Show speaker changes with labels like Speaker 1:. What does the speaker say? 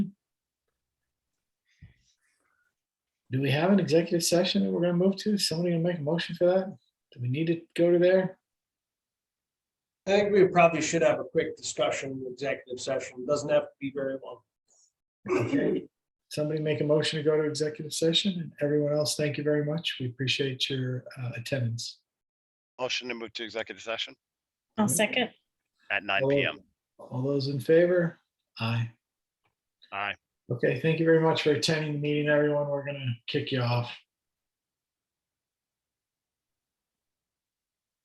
Speaker 1: Do we have an executive session that we're gonna move to? Somebody gonna make a motion for that? Do we need to go to there?
Speaker 2: I think we probably should have a quick discussion, executive session, doesn't have to be very long.
Speaker 1: Somebody make a motion to go to executive session and everyone else, thank you very much. We appreciate your uh, attendance.
Speaker 3: Motion to move to executive session
Speaker 4: I'll second.
Speaker 3: at nine
Speaker 1: All-
Speaker 3: PM.
Speaker 1: All those in favor? Aye.
Speaker 3: Aye.
Speaker 1: Okay, thank you very much for attending the meeting, everyone. We're gonna kick you off.